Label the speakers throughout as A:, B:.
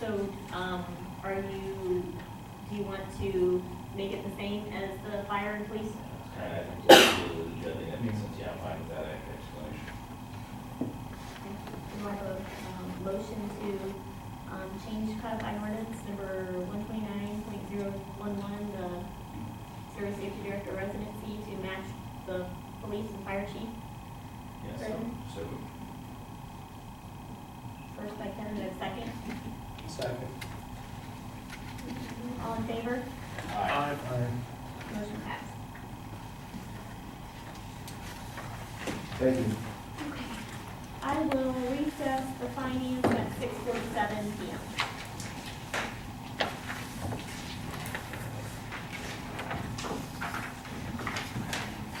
A: So, um, are you, do you want to make it the same as the fire and police?
B: I think that's really good, and that makes sense, yeah, I'm fine with that explanation.
A: Do I have a, um, motion to, um, change codified ordinance number one twenty-nine point zero one one, the service safety director residency to match the police and fire chief?
B: Yeah, so, so, moved.
A: First by Kevin, then second.
C: Second.
A: All in favor?
B: aye.
A: Motion passed.
D: Thank you.
A: I will recess the finance at six forty-seven PM.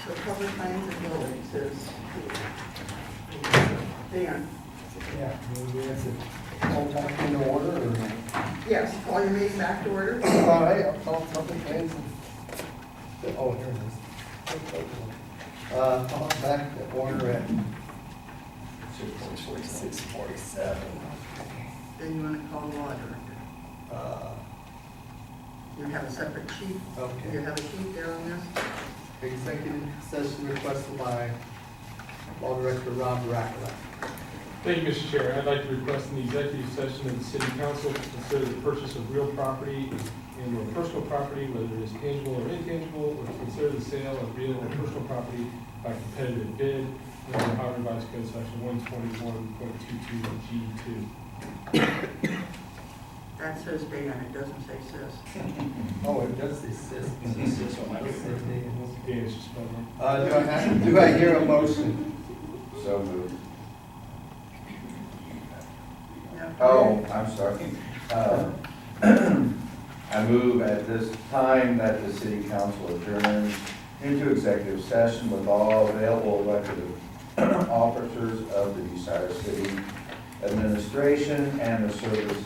E: So public lands and buildings is Dan.
D: Yeah, maybe that's it. All back in order or?
E: Yes, call your meeting back to order.
D: All right, I'll call public lands. and- Oh, here it is. Uh, call it back to order at six forty-seven.
E: Then you want to call the law director.
D: Uh,
E: You have a separate sheet. You
D: okay.
E: have a sheet there on this?
D: Executive session requested by Law Director Rob Rackler.
F: Thank you, Mr. Chair. I'd like to request an executive session of the city council to consider the purchase of real property and or personal property, whether it is tangible or intangible, or to consider the sale of real or personal property by competitive bid under Ohio Revised Code Section one twenty-one point two-two G two.
E: That says Dan, it doesn't say sis.
D: Oh, it does say sis.
B: Is it sis on my
D: Does say Dan.
F: Dan, it's just spelled wrong.
D: Uh, do I have, do I hear a motion?
G: So moved.
E: No.
G: Oh, I'm sorry. Uh, I move at this time that the city council adjourn into executive session with all available elected officers of the Bucyrus City Administration and the Service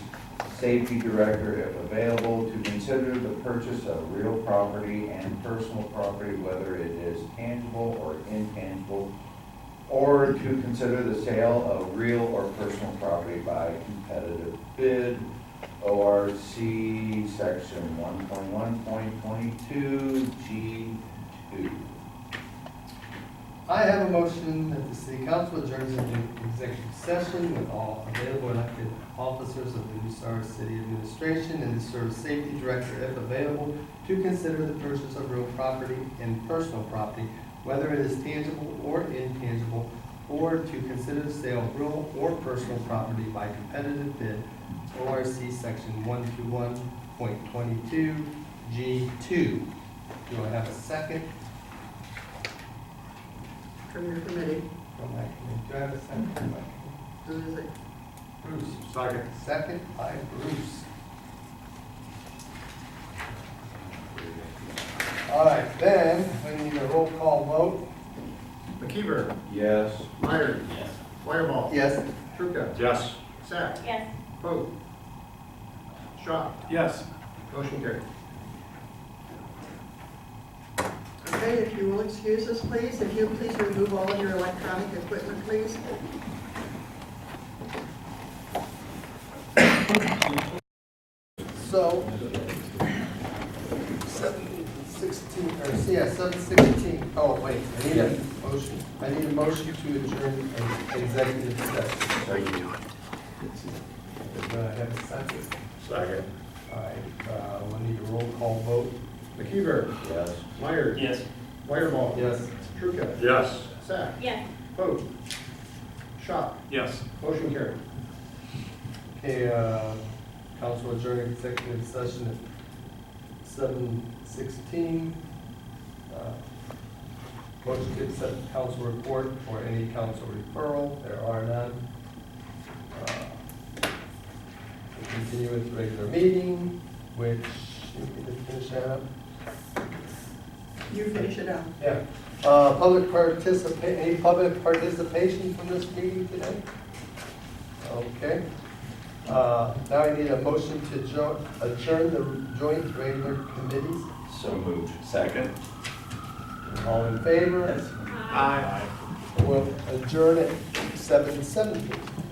G: Safety Director, if available, to consider the purchase of real property and personal property, whether it is tangible or intangible, or to consider the sale of real or personal property by competitive bid, ORC Section 1.1.22G2.
D: I have a motion that the city council adjourns into executive session with all available elected officers of the Bucyrus City Administration and the Service Safety Director, if available, to consider the purchase of real property and personal property, whether it is tangible or intangible, or to consider the sale of real or personal property by competitive bid, ORC Section 121.22G2. Do I have a second
E: From your committee,
D: from my committee? Do I have a second from my committee?
E: who is it?
D: Bruce. Second. Second by Bruce. All right, then, we need a roll call vote.
H: McKeever,
G: Yes.
H: Meyer,
B: Yes.
H: Wireball,
D: Yes.
H: Trucca,
C: Yes.
H: Sack,
A: Yes.
H: Poe, Shaw,
C: Yes.
H: motion carried.
E: Okay, if you will excuse us, please. If you please remove all of your electronic equipment, please.
D: So, seven sixteen, or, yeah, seven sixteen, oh, wait, I need a motion, I need a motion to adjourn an executive session. Do I have a second?
H: Second.
D: All right, uh, we need a roll call vote.
H: McKeever,
G: Yes.
H: Meyer.
C: Yes.
H: Wireball.
D: Yes.
H: Trucca,
C: Yes.
H: Sack,
A: Yes.
H: Poe, Shaw,
C: Yes.
H: motion carried.
D: Okay, uh, council adjourned executive session at seven sixteen. Uh, Motion to accept council report or any council referral, there are none. Uh, We Continue with regular meeting, which, you need to finish that up?
E: You finish it up.
D: Yeah. Uh, Public participa, any public participation from this meeting today? Okay. Uh, Now I need a motion to jo- adjourn the joint regular committees.
B: So moved. Second.
D: All in favor?
A: Aye.
D: We'll adjourn at seven seventeen.